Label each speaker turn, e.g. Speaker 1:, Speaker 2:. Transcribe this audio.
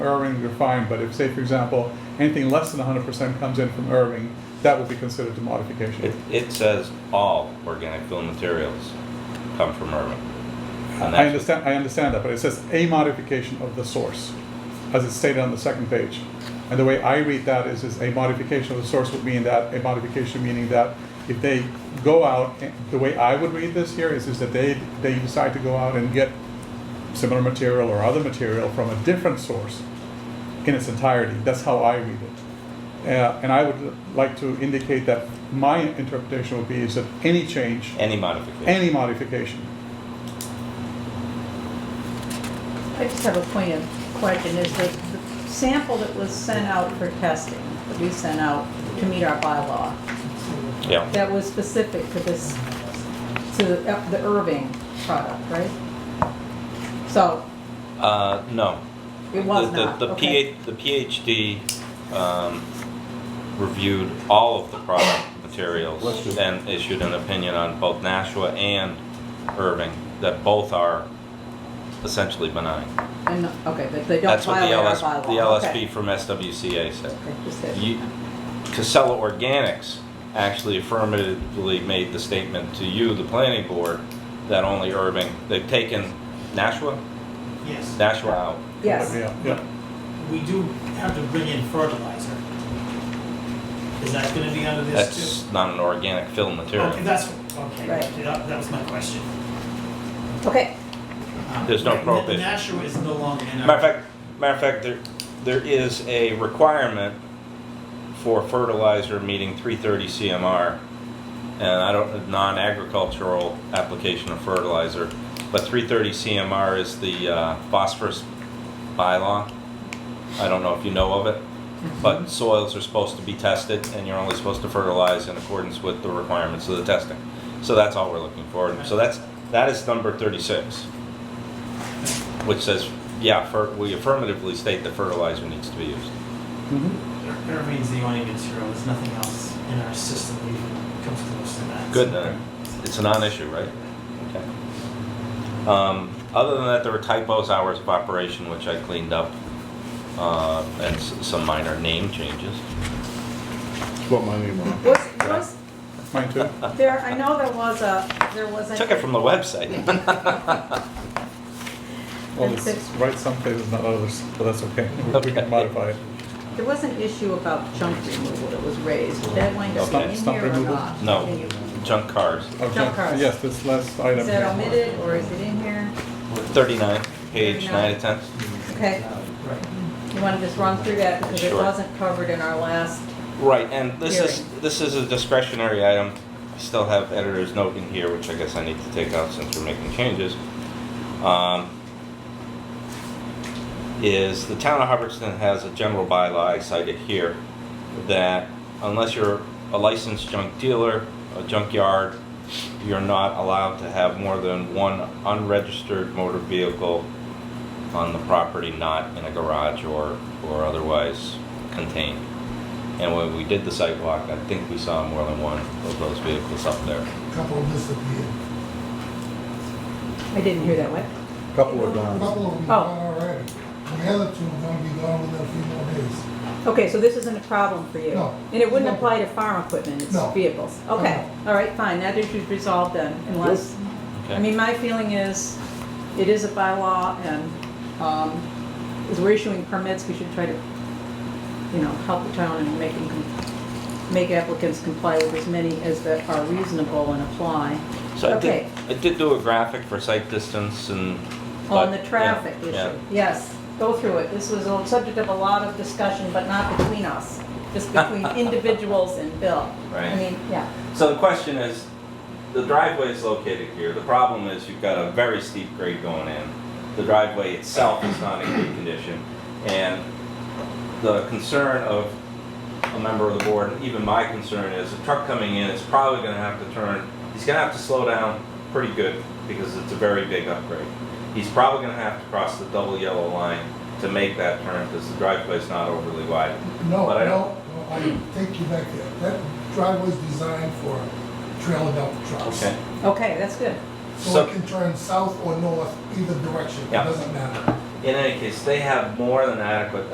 Speaker 1: Irving, you're fine, but if, say, for example, anything less than hundred percent comes in from Irving, that would be considered a
Speaker 2: It,
Speaker 1: modification.
Speaker 2: it says all organic film materials come from Irving. And
Speaker 1: I
Speaker 2: that's what-
Speaker 1: understand, I understand that, but it says a modification of the source, as it's stated on the second page. And the way I read that is, is a modification of the source would mean that, a modification meaning that if they go out, and- the way I would read this here is, is that they, they decide to go out and get similar material or other material from a different source in its entirety. That's how I read it. Uh, And I would like to indicate that my interpretation would be is that any change,
Speaker 2: Any modification.
Speaker 1: any modification,
Speaker 3: I just have a point of question, is that the sample that was sent out for testing, that we sent out to meet our bylaw,
Speaker 2: Yeah,
Speaker 3: that was specific to this, to the Irving product, right? So,
Speaker 2: uh, no.
Speaker 3: it
Speaker 2: The-
Speaker 3: was
Speaker 2: the-
Speaker 3: not,
Speaker 2: The
Speaker 3: okay.
Speaker 2: PH, the PhD, um, reviewed all of the product materials
Speaker 4: Let's do-
Speaker 2: and issued an opinion on both Nashua and Irving, that both are essentially benign.
Speaker 3: And, okay, but they don't
Speaker 2: That's what the
Speaker 3: violate our
Speaker 2: LS,
Speaker 3: bylaw.
Speaker 2: the
Speaker 3: okay.
Speaker 2: LSP from SWCA said.
Speaker 3: Okay, just that.
Speaker 2: You- Casella Organics actually affirmatively made the statement to you, the planning board, that only Irving, they've taken Nashua,
Speaker 4: Yes,
Speaker 2: Nashua out.
Speaker 3: Yes,
Speaker 1: Yeah, yeah.
Speaker 4: we do have to bring in fertilizer. Is that gonna be under this
Speaker 2: That's
Speaker 4: too?
Speaker 2: not an organic film
Speaker 4: Okay,
Speaker 2: material.
Speaker 4: that's, okay,
Speaker 3: Right.
Speaker 4: that, that was my question.
Speaker 3: okay,
Speaker 4: Um,
Speaker 2: There's no
Speaker 4: right, N-
Speaker 2: prohibition.
Speaker 4: Nashua is no longer in our.
Speaker 2: Matter of fact, matter of fact, there, there is a requirement for fertilizer meeting three thirty CMR. And I don't, non-agricultural application of fertilizer, but three thirty CMR is the uh, phosphorus bylaw. I don't know if you know of it,
Speaker 4: Mm-hmm.
Speaker 2: but soils are supposed to be tested and you're only supposed to fertilize in accordance with the requirements of the testing. So that's all we're looking for. So that's, that is number thirty-six which says, yeah, fer- we affirmatively state that fertilizer needs to be used.
Speaker 1: Mhm.
Speaker 4: Ir- Irving's the only material, there's nothing else in our system that even comes close to that.
Speaker 2: Good, then. It's a non-issue, right? Okay. Um, other than that, there were typos, hours of operation, which I cleaned up, uh, and s- some minor name changes.
Speaker 5: What my name on.
Speaker 3: was, was,
Speaker 1: Mine too.
Speaker 2: Uh.
Speaker 3: there, I know there was a, there was a.
Speaker 2: Took it from the website.
Speaker 1: Well,
Speaker 3: And
Speaker 1: it's
Speaker 3: six.
Speaker 1: right some places, not others, but that's okay. We- We
Speaker 2: Okay.
Speaker 1: can modify it.
Speaker 3: There was an issue about junk removal that was raised. Did that wind up
Speaker 2: Okay.
Speaker 3: being in
Speaker 1: Stump
Speaker 3: here or
Speaker 1: removal?
Speaker 3: not?
Speaker 2: No.
Speaker 3: Can you-
Speaker 2: Junk cars,
Speaker 1: Okay.
Speaker 3: Junk cars.
Speaker 1: Yes, this last item.
Speaker 3: Is that
Speaker 1: here.
Speaker 3: omitted or is it in here?
Speaker 2: thirty-nine, page nine to ten.
Speaker 3: Okay,
Speaker 4: Right.
Speaker 3: you want to just run through that because it
Speaker 2: Sure.
Speaker 3: wasn't covered in our last,
Speaker 2: Right, and this is,
Speaker 3: Hearing.
Speaker 2: this is a discretionary item. I still have editor's note in here, which I guess I need to take out since we're making changes. Um, Is the town of Hubbardston has a general bylaw I cited here that unless you're a licensed junk dealer, a junkyard, you're not allowed to have more than one unregistered motor vehicle on the property, not in a garage or, or otherwise contained. And when we did the site walk, I think we saw more than one of those vehicles up there.
Speaker 6: couple disappeared.
Speaker 3: I didn't hear that, what?
Speaker 5: Couple
Speaker 6: A
Speaker 5: of gone.
Speaker 6: couple of them
Speaker 3: Oh.
Speaker 6: gone already. The other two are gonna be gone within a few more days.
Speaker 3: Okay, so this isn't a problem for you?
Speaker 6: No.
Speaker 3: And it wouldn't
Speaker 6: No.
Speaker 3: apply to farm equipment, it's
Speaker 6: No.
Speaker 3: vehicles? Okay, all right, fine, that issue's resolved then, unless, I
Speaker 2: Okay.
Speaker 3: mean, my feeling is, it is a bylaw and, um, as we're issuing permits, we should try to, you know, help the town and making, make applicants comply with as many as that are reasonable and apply.
Speaker 2: So I
Speaker 3: Okay.
Speaker 2: did, I did do a graphic for site distance and.
Speaker 3: On
Speaker 2: but-
Speaker 3: the traffic
Speaker 2: yeah, yeah.
Speaker 3: issue, yes, go through it. This was a subject of a lot of discussion, but not between us, just between individuals and Bill. I
Speaker 2: Right.
Speaker 3: mean, yeah,
Speaker 2: So the question is, the driveway is located here. The problem is you've got a very steep grade going in. The driveway itself is not in good condition. And the concern of a member of the board, and even my concern is, a truck coming in is probably gonna have to turn, he's gonna have to slow down pretty good because it's a very big upgrade. He's probably gonna have to cross the double yellow line to make that turn because the driveway's not overly wide.
Speaker 6: No,
Speaker 2: But I
Speaker 6: no, no, I take you back there. That driveway's designed for trailer dump trucks.
Speaker 2: Okay.
Speaker 3: okay, that's good.
Speaker 6: So
Speaker 2: So-
Speaker 6: it can turn south or north, either direction, it
Speaker 2: Yeah.
Speaker 6: doesn't matter.
Speaker 2: in any case, they have more than adequate